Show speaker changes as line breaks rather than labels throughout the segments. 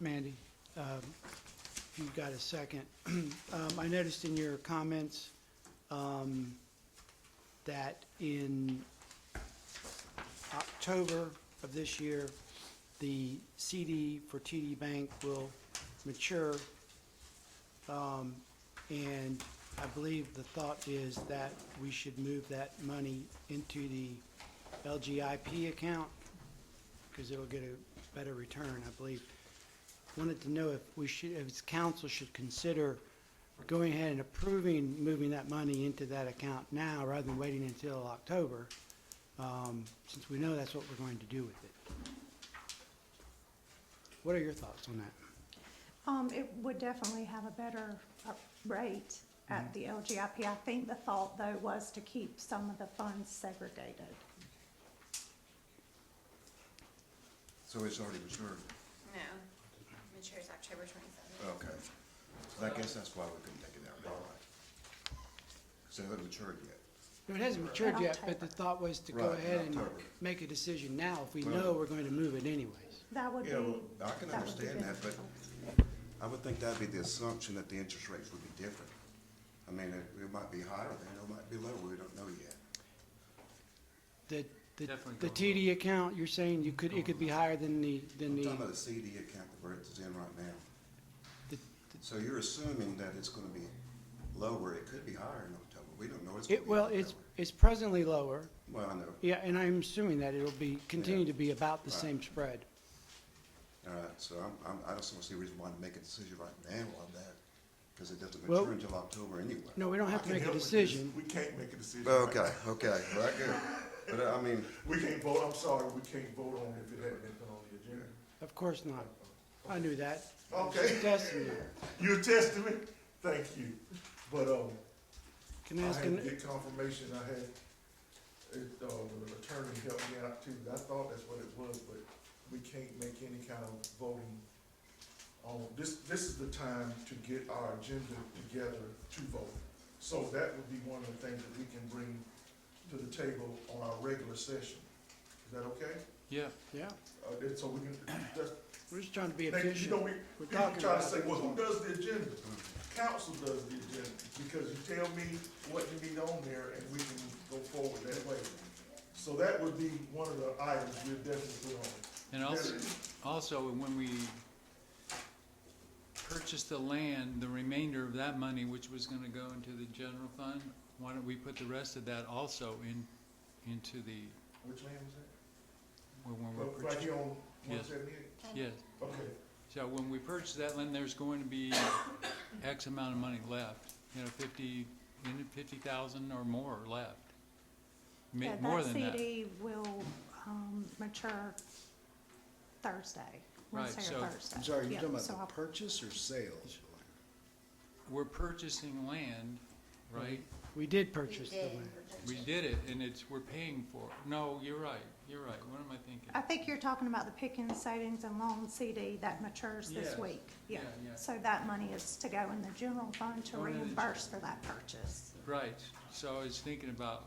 Mandy, um, if you've got a second. Um, I noticed in your comments um, that in October of this year, the CD for TD Bank will mature. Um, And I believe the thought is that we should move that money into the LGIP account because it'll get a better return, I believe. Wanted to know if we should, if council should consider going ahead and approving moving that money into that account now rather than waiting until October, um, since we know that's what we're going to do with it. What are your thoughts on that?
Um, it would definitely have a better uh, rate
Mm-hmm.
at the LGIP. I think the thought though was to keep some of the funds segregated.
So it's already reserved?
No, matures October twenty-seventh.
Okay. So I guess that's why we couldn't take it out, all right. So it hasn't matured yet.
No, It hasn't matured
In
yet, but the
October.
thought was to go
Right, in
ahead and
October.
make a decision now if we
Well-
know we're going to move it anyways.
That would be.
Yeah, well, I can
that would be
understand that, but
beneficial.
I would think that'd be the assumption that the interest rates would be different. I mean, it, it might be higher than, it might be lower, we don't know yet.
The, the,
Definitely
the
going
TD account, you're saying you could, it could be higher than the, than
I'm
the,
talking about the CD account that we're it's in right now.
The-
So you're assuming that it's gonna be lower, it could be higher in October, we don't know it's gonna
it,
be.
well,
in
it's,
October.
it's presently lower.
Well, I know,
Yeah, and I'm assuming that it'll be, continue to be about the
Right.
same spread.
all right, so I'm, I'm, I just don't see a reason why to make a decision right now on that, cause it doesn't
Well-
mature until October anyway.
No, we don't have to
I
make
can't
a
help with this.
decision.
We can't make a decision.
Well,
right
Okay, okay, right, good, but uh, I mean,
now. We can't vote, I'm sorry, we can't vote on it if it hadn't been put on the agenda.
Of course not. I knew that.
Okay.
Testing you.
You attest to it? Thank you. But, um,
Can
I
I ask,
had to
an-
get confirmation, I had, it, uh, the attorney helped me out too, I thought that's what it was, but we can't make any kind of voting. Um, this, this is the time to get our agenda together to vote. So that would be one of the things that we can bring to the table on our regular session. Is that okay?
Yeah,
yeah,
Uh, that- so we can, that's,
we're just trying to be
they, you know,
efficient.
we,
We're
people
talking
try to
about
say,
it.
well, who does the agenda? Council does the agenda, because you tell me what you need on there, and we can go forward that way. So that would be one of the items we will definitely put on.
and also, also when we purchased the land, the remainder of that money, which was gonna go into the general fund, why don't we put the rest of that also in, into the,
Which land was that?
when when
Well,
we're
Right
purchasing?
here on one
Yes.
seventy-eight?
Yes,
Okay,
so when we purchase that land, there's going to be X amount of money left, you know, fifty, fifty thousand or more left. Ma-
Yeah,
More than
That
that,
CD will, um, mature Thursday,
Right,
Wednesday
so-
or Thursday.
I'm sorry,
Yeah,
you're talking
so I'll-
about the purchase or sale?
we're purchasing land, right?
We did purchase the land.
We did it, and it's, we're paying for it. No, you're right, you're right. What am I thinking?
Ah.
I think you're talking about the Pickens Savings and Loan CD that matures this
Yes.
week.
Yeah, yeah.
So that money is to go in the general fund to
Going in the
reimburse for that purchase.
Right, so I was thinking about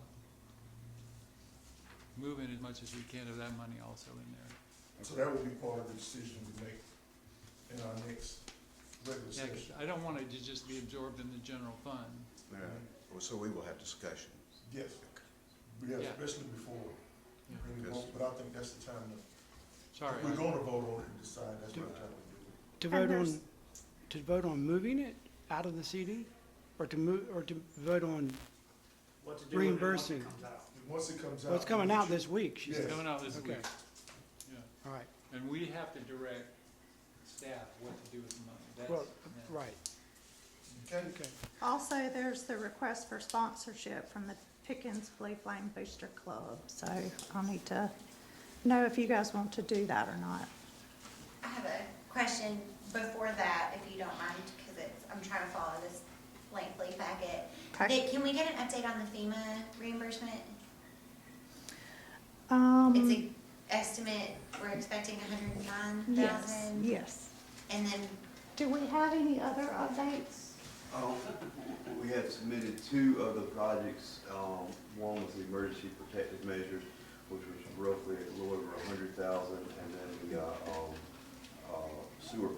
moving as much as we can of that money also in there.
so that would be part of the decision we make in our next regular
Yeah, 'cause
session.
I don't want it to just be absorbed in the general fund.
yeah, well, so we will have discussion.
Yes, yeah,
Yeah.
especially before we bring it
Yes.
on, but I think that's the time to,
Sorry,
we're
I-
gonna vote on it and decide, that's what I'm trying to do.
To
And
vote
there's-
on, to vote on moving it out of the CD? Or to move, or to vote on
what to do with it once
reimbursing?
it comes out.
Once it comes out.
Well, it's coming out this week, she
Yeah.
said.
coming out this
Okay.
week. Yeah.
All right,
And we have to direct staff what to do with the money.
well,
That's, yeah.
right,
Okay,
okay.
Also, there's the request for sponsorship from the Pickens Blue Flame Booster Club. So I'll need to know if you guys want to do that or not.
I have a question before that, if you don't mind, because it's, I'm trying to follow this lengthy packet.
Okay.
Nick, can we get an update on the FEMA reimbursement? It's
Um,
an estimate, we're expecting hundred and nine
yes,
thousand,
yes.
and then,
Do we have any other updates?
Um, We had submitted two of the projects. Um, One was the emergency protective measures, which was roughly a little over a hundred thousand, and then we got um, uh, sewer